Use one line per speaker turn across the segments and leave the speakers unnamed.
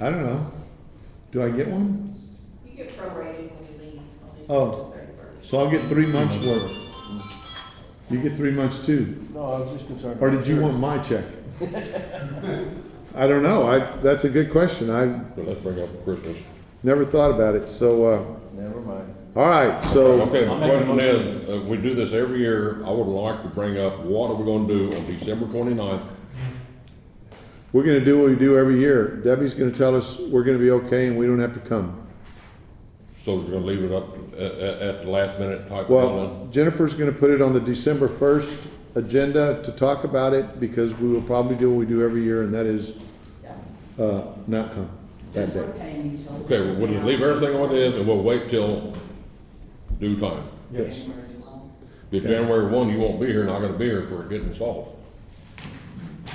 I don't know. Do I get one?
You get prorated when you leave on
Oh.
December thirty-first.
So I'll get three months worth. You get three months too.
No, I was just concerned.
Or
about
did you want
yours.
my check? I don't know. I, that's a good question. I
But let's bring up Christmas.
never thought about it. So, uh,
Never mind.
all right. So,
Okay,
I'll
the
make a
question
motion.
is, uh, we do this every year, I would like to bring up, what are we gonna do on December twenty-ninth?
we're going to do what we do every year. Debbie's going to tell us we're going to be okay and we don't have to come.
So we're gonna leave it up at, at the last minute type deadline?
Well, Jennifer's gonna put it on the December first agenda to talk about it, because we will probably do what we do every year, and that is,
Yeah.
uh, not come that
Since
day.
we're paying utilities
Okay, well, we'll
now,
leave everything what it is and we'll wait till due time.
Yes.
January alone.
If January one, you won't be here and I'm gonna be here for it getting installed.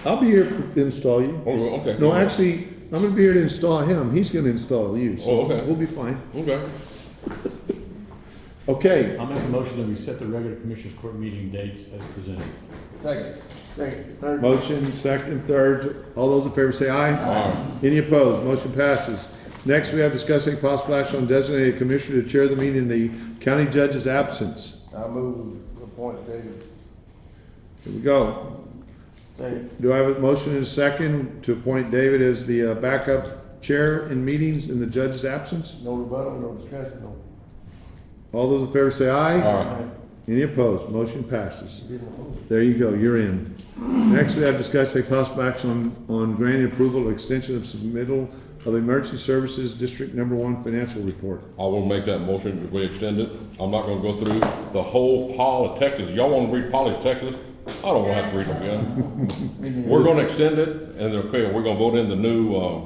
I'll be here to install you.
Oh, okay.
No, actually, I'm gonna be here to install him, he's gonna install you,
Oh,
so
okay.
we'll be fine.
Okay,
Okay,
I'll make a motion that we set the regular commissioners court meeting dates as presented.
Second. Second. Third.
motion, second, third, all those in favor say aye.
alright,
Any opposed, motion passes. Next, we have discussing possible action on designated commissioner to chair the meeting in the county judge's absence.
I move the point, David.
Here we go,
Second.
Do I have a motion and a second to appoint David as the uh, backup chair in meetings in the judge's absence?
No rebuttal, no discussion, no.
All those in favor say aye.
alright.
Any opposed? Motion passes.
Didn't move.
There you go, you're in. Next, we have discussed a possible action on, on granting approval of extension of submittal of emergency services district number one financial report.
I will make that motion if we extend it. I'm not gonna go through the whole pile of Texas. Y'all wanna read Polly's Texas? I don't wanna have to read them again. We're gonna extend it, and okay, we're gonna vote in the new, uh,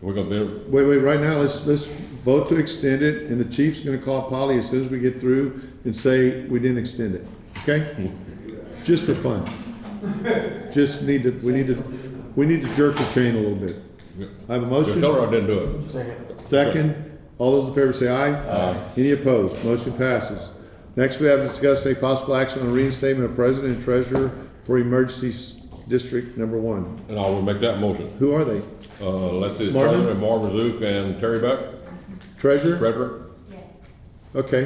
we're gonna be,
Wait, wait, right now, let's, let's vote to extend it, and the chief's gonna call Polly as soon as we get through and say we didn't extend it, okay? Just for fun. Just need to, we need to, we need to jerk the chain a little bit. I have a
tell
motion,
her I didn't do it.
Second.
second, all those in favor say aye. Aye. Any opposed, motion passes. Next, we have discussed a possible action on reinstatement of president and treasurer for emergency s- district number one.
And I will make that motion.
Who are they?
Uh, let's see,
Marvin?
President Marvin Zook and Terry Beck,
Treasurer?
Frederick.
Yes.
Okay.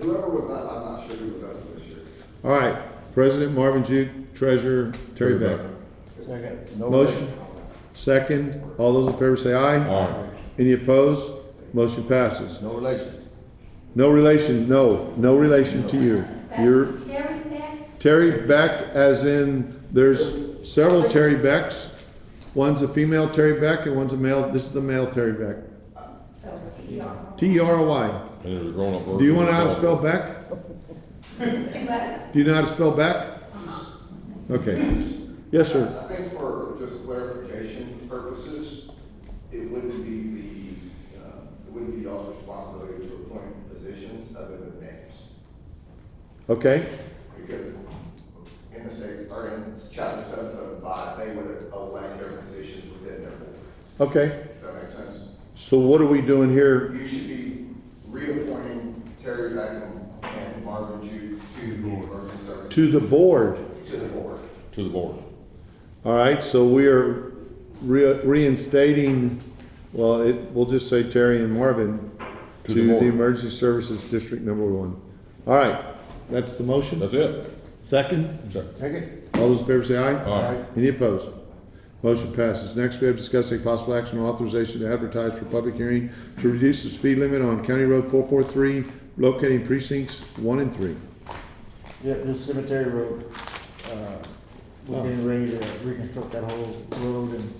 Whoever was up, I'm not sure who was up this year.
All right, President Marvin Juke, Treasurer Terry Beck.
Second. No
Motion, second, all those in favor say aye.
Alright,
Any opposed? Motion passes.
No relation.
No relation, no, no relation to you. You're
That's Terry Beck,
Terry Beck, as in, there's several Terry Becks. One's a female Terry Beck and one's a male, this is the male Terry Beck.
so T R.
T E R O Y.
and there's a grown-up version.
Do you want to know how to spell Beck? Do you know how to spell Beck? Okay. Yes, sir.
I think for just clarification purposes, it wouldn't be the, uh, it wouldn't be y'all's responsibility to appoint positions other than names.
Okay,
Because in the states, or in chapter seven seven five, they would elect their positions within their board.
okay.
Does that make sense?
So what are we doing here
You should be reappointing Terry Beckham and Marvin Jude to the emergency services,
to the board.
to the board.
To the board.
All right, so we are re- reinstating, well, it, we'll just say Terry and Marvin to
To the
the
board.
Emergency Services District Number One. All right, that's the motion.
That's it.
Second,
Second.
all those in favor say aye.
Alright,
Any opposed? Motion passes. Next, we have discussed a possible action on authorization to advertise for public hearing to reduce the speed limit on County Road four four three, locating precincts one and three.
Yep, this cemetery road, uh, we're getting ready to reconstruct that whole road and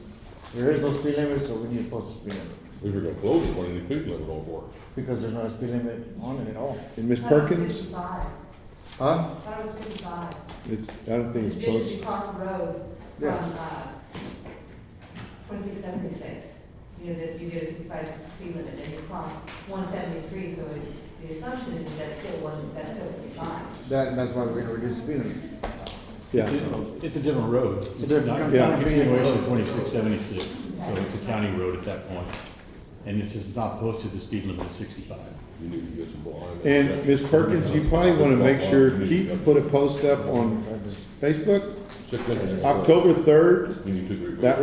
there is no speed limit, so we need to post a speed limit.
we were gonna close it when these people that were going for it.
Because there's not a speed limit on it at all.
And Ms. Perkins,
Thought
Huh?
it was fifty-five.
it's, I don't think it's
Just as you
close.
cross the road from,
Yeah.
uh, twenty-six seventy-six, you know, that you get a fifty-five speed limit and you cross one seventy-three, so it, the assumption is that that's still one, that's still fifty-five.
That, that's why we're gonna reduce the speed limit.
Yeah.
It's a different road. It's
different-
not-
comes
it's
out
not
of
a
being-
continuation of twenty-six seventy-six, so it's a county road at that point. And it's just not posted the speed limit of sixty-five.
You need to get some blind.
And Ms. Perkins, you probably want to make sure, keep, put a post up on Facebook,
Six inches.
October 3rd,
You need two, three.
That